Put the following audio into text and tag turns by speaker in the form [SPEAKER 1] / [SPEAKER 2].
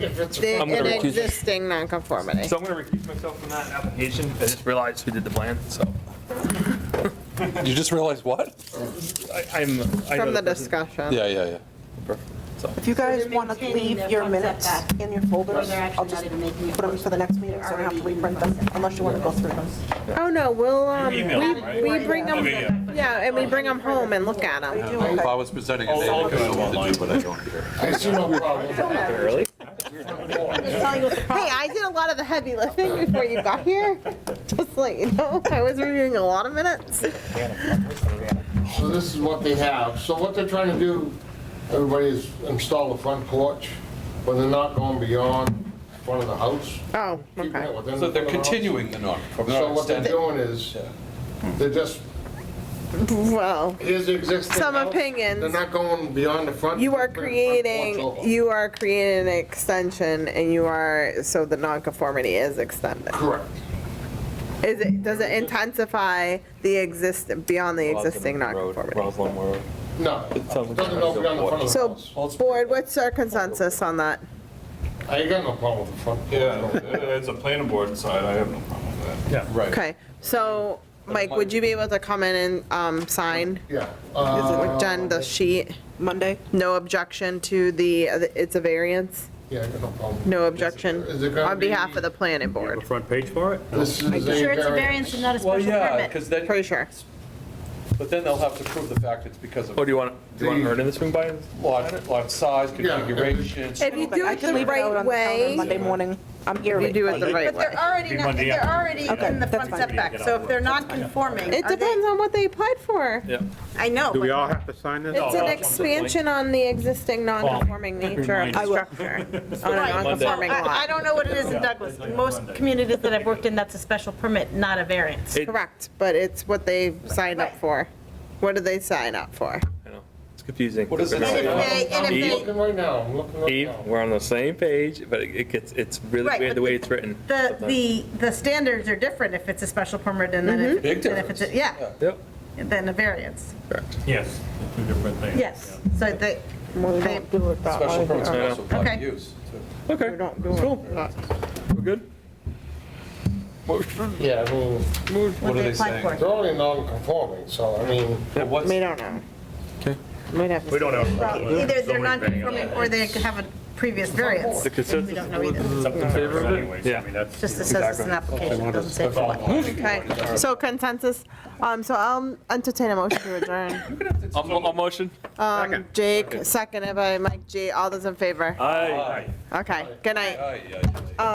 [SPEAKER 1] If it's a
[SPEAKER 2] The-
[SPEAKER 3] I'm gonna
[SPEAKER 2] An
[SPEAKER 3] recuse-
[SPEAKER 2] existing nonconformity.
[SPEAKER 3] So I'm gonna recuse myself from that application. I just realized who did the plan, so.
[SPEAKER 4] You just realized what?
[SPEAKER 3] I- I'm. I know
[SPEAKER 2] From the
[SPEAKER 3] person.
[SPEAKER 2] discussion.
[SPEAKER 4] Yeah, yeah, yeah.
[SPEAKER 3] So,
[SPEAKER 5] If you guys
[SPEAKER 6] They're
[SPEAKER 5] want to
[SPEAKER 6] maintaining
[SPEAKER 5] leave
[SPEAKER 6] their
[SPEAKER 5] your
[SPEAKER 6] front
[SPEAKER 5] minutes
[SPEAKER 6] setback.
[SPEAKER 5] in your folders,
[SPEAKER 6] They're actually
[SPEAKER 5] I'll
[SPEAKER 6] not
[SPEAKER 5] just
[SPEAKER 6] even making it
[SPEAKER 5] put them for the next meeting, so I don't have to
[SPEAKER 6] Already in
[SPEAKER 5] reprint
[SPEAKER 6] the
[SPEAKER 5] them,
[SPEAKER 6] process.
[SPEAKER 5] unless you want to go through them.
[SPEAKER 2] Oh, no, we'll, um,
[SPEAKER 3] You emailed them,
[SPEAKER 2] we,
[SPEAKER 3] right?
[SPEAKER 2] we bring them,
[SPEAKER 3] Okay, yeah.
[SPEAKER 2] yeah, and we bring them home and look at
[SPEAKER 5] You
[SPEAKER 2] them.
[SPEAKER 5] do?
[SPEAKER 4] If I
[SPEAKER 5] Okay.
[SPEAKER 4] was presenting it,
[SPEAKER 3] I'll- I'll
[SPEAKER 4] I'd
[SPEAKER 3] look it up
[SPEAKER 4] do, but I don't care.
[SPEAKER 1] I see no problem.
[SPEAKER 3] Early?
[SPEAKER 2] Hey, I did a lot of the heavy lifting before you got here. Just like, you know, I was reviewing a lot of minutes.
[SPEAKER 1] So this is what they have. So what they're trying to do, everybody is install the front porch, but they're not going beyond front of the house.
[SPEAKER 2] Oh,
[SPEAKER 1] keeping it
[SPEAKER 2] okay.
[SPEAKER 1] within
[SPEAKER 4] So they're
[SPEAKER 1] the front of the house.
[SPEAKER 4] continuing the non, they're
[SPEAKER 1] So
[SPEAKER 4] not
[SPEAKER 1] what they're
[SPEAKER 4] extending.
[SPEAKER 1] doing is, they're just,
[SPEAKER 2] Well,
[SPEAKER 1] here's the existing
[SPEAKER 2] Some
[SPEAKER 1] house.
[SPEAKER 2] opinions.
[SPEAKER 1] They're not going beyond the front.
[SPEAKER 2] you are
[SPEAKER 1] front porch
[SPEAKER 2] creating,
[SPEAKER 1] over.
[SPEAKER 2] you are creating an extension and you are, so the nonconformity is extended.
[SPEAKER 1] Correct.
[SPEAKER 2] Is it, does it intensify the exist, beyond the existing nonconformity?
[SPEAKER 3] Roslyn Road.
[SPEAKER 1] No, it doesn't go beyond the front of the
[SPEAKER 2] So,
[SPEAKER 1] house.
[SPEAKER 2] board, what's our consensus on that?
[SPEAKER 1] I ain't got no problem with the front porch.
[SPEAKER 7] Yeah, it's a planning board side, I have no problem with that.
[SPEAKER 4] Right.
[SPEAKER 2] Okay, so, Mike, would you be able to come in and, um, sign
[SPEAKER 1] Yeah. uh,
[SPEAKER 2] with Jen the sheet?
[SPEAKER 5] Monday?
[SPEAKER 2] No objection to the, it's a variance?
[SPEAKER 1] Yeah, I got no problem.
[SPEAKER 2] No objection
[SPEAKER 1] Is it gonna
[SPEAKER 2] on behalf
[SPEAKER 1] be-
[SPEAKER 2] of the planning board,
[SPEAKER 7] front page for it?
[SPEAKER 1] This is a
[SPEAKER 6] Sure, it's a
[SPEAKER 1] variance.
[SPEAKER 6] variance and not a
[SPEAKER 4] Well,
[SPEAKER 6] special
[SPEAKER 4] yeah,
[SPEAKER 6] permit.
[SPEAKER 4] because then,
[SPEAKER 2] pretty sure.
[SPEAKER 4] but then they'll have to prove the fact it's because of
[SPEAKER 3] Oh, do you want, do you want
[SPEAKER 1] The-
[SPEAKER 3] Ernie to swing by?
[SPEAKER 4] lot, lot size,
[SPEAKER 1] Yeah.
[SPEAKER 4] configuration.
[SPEAKER 2] If you do
[SPEAKER 5] I
[SPEAKER 2] it
[SPEAKER 5] can leave
[SPEAKER 2] the
[SPEAKER 5] it out
[SPEAKER 2] right
[SPEAKER 5] on the calendar
[SPEAKER 2] way,
[SPEAKER 5] Monday morning. I'm here.
[SPEAKER 2] if you do it the
[SPEAKER 5] late.
[SPEAKER 2] right
[SPEAKER 6] But
[SPEAKER 2] way.
[SPEAKER 6] they're already, not-
[SPEAKER 7] Monday
[SPEAKER 6] they're already
[SPEAKER 7] afternoon.
[SPEAKER 5] Okay,
[SPEAKER 6] in the
[SPEAKER 5] that's
[SPEAKER 6] front
[SPEAKER 5] fine.
[SPEAKER 7] Get
[SPEAKER 6] setback,
[SPEAKER 7] out
[SPEAKER 6] so
[SPEAKER 7] of
[SPEAKER 6] if they're
[SPEAKER 7] work.
[SPEAKER 6] non-conforming,
[SPEAKER 2] It
[SPEAKER 6] are they?
[SPEAKER 2] depends on what they applied for.
[SPEAKER 3] Yeah.
[SPEAKER 6] I know,
[SPEAKER 7] Do we
[SPEAKER 6] but
[SPEAKER 7] all have to sign this?
[SPEAKER 2] It's an expansion on the existing non-conforming nature of the
[SPEAKER 5] I will.
[SPEAKER 2] structure, on
[SPEAKER 6] Right,
[SPEAKER 2] a
[SPEAKER 6] so
[SPEAKER 2] non-conforming
[SPEAKER 6] I I
[SPEAKER 2] lot.
[SPEAKER 6] don't know what it is in Douglas. In Most communities that I've worked in, that's a special permit, not a variance.
[SPEAKER 3] It-
[SPEAKER 2] Correct, but it's what they signed up
[SPEAKER 6] Right.
[SPEAKER 2] for. What did they sign up for?
[SPEAKER 3] I know. It's confusing.
[SPEAKER 4] What does it
[SPEAKER 6] And if
[SPEAKER 4] say?
[SPEAKER 6] they, and
[SPEAKER 1] I'm
[SPEAKER 6] if they,
[SPEAKER 1] looking right now, I'm looking right
[SPEAKER 3] Eve,
[SPEAKER 1] now.
[SPEAKER 3] we're on the same page, but it it gets, it's really
[SPEAKER 6] Right,
[SPEAKER 3] weird
[SPEAKER 6] but
[SPEAKER 3] the way
[SPEAKER 6] the-
[SPEAKER 3] it's written.
[SPEAKER 6] the,
[SPEAKER 3] sometimes.
[SPEAKER 6] the, the standards are different if it's a special permit and then
[SPEAKER 5] Mm-hmm.
[SPEAKER 6] if,
[SPEAKER 4] Big
[SPEAKER 6] and if it's, a-
[SPEAKER 4] difference.
[SPEAKER 6] yeah,
[SPEAKER 3] Yep,
[SPEAKER 6] than a variance.
[SPEAKER 3] correct.
[SPEAKER 7] Yes, two different things.
[SPEAKER 6] Yes, so they,
[SPEAKER 5] Well, we don't do it that
[SPEAKER 4] Special
[SPEAKER 5] way
[SPEAKER 4] permits
[SPEAKER 5] here.
[SPEAKER 4] are also private
[SPEAKER 6] Okay.
[SPEAKER 4] use. too.
[SPEAKER 3] Okay,
[SPEAKER 2] We don't do
[SPEAKER 3] cool.
[SPEAKER 2] it. Not-
[SPEAKER 3] We're good?
[SPEAKER 1] Yeah, I mean,
[SPEAKER 4] What
[SPEAKER 6] what
[SPEAKER 4] are
[SPEAKER 6] they
[SPEAKER 4] they
[SPEAKER 6] applied
[SPEAKER 4] saying?
[SPEAKER 6] for.
[SPEAKER 1] they're only non-conforming, so I mean,
[SPEAKER 4] But what's-
[SPEAKER 2] We don't know.
[SPEAKER 4] Okay.
[SPEAKER 2] We'd have to.
[SPEAKER 7] We don't have.
[SPEAKER 6] Either they're non-conforming or they have a previous variance.
[SPEAKER 3] The
[SPEAKER 6] We
[SPEAKER 3] consensus,
[SPEAKER 6] don't know either.
[SPEAKER 7] It's up to
[SPEAKER 3] favor of it?
[SPEAKER 7] anyways, I mean, that's.
[SPEAKER 6] Just it says it's an application, it doesn't say for what.
[SPEAKER 2] Okay, so consensus, um, so I'll entertain a motion to adjourn.
[SPEAKER 3] a mo- a motion?
[SPEAKER 2] Um,
[SPEAKER 3] Uh,
[SPEAKER 2] Jake, seconded by Mike G, all those in favor?
[SPEAKER 3] Aye.
[SPEAKER 4] Aye,
[SPEAKER 2] Okay, good night.
[SPEAKER 4] aye, aye.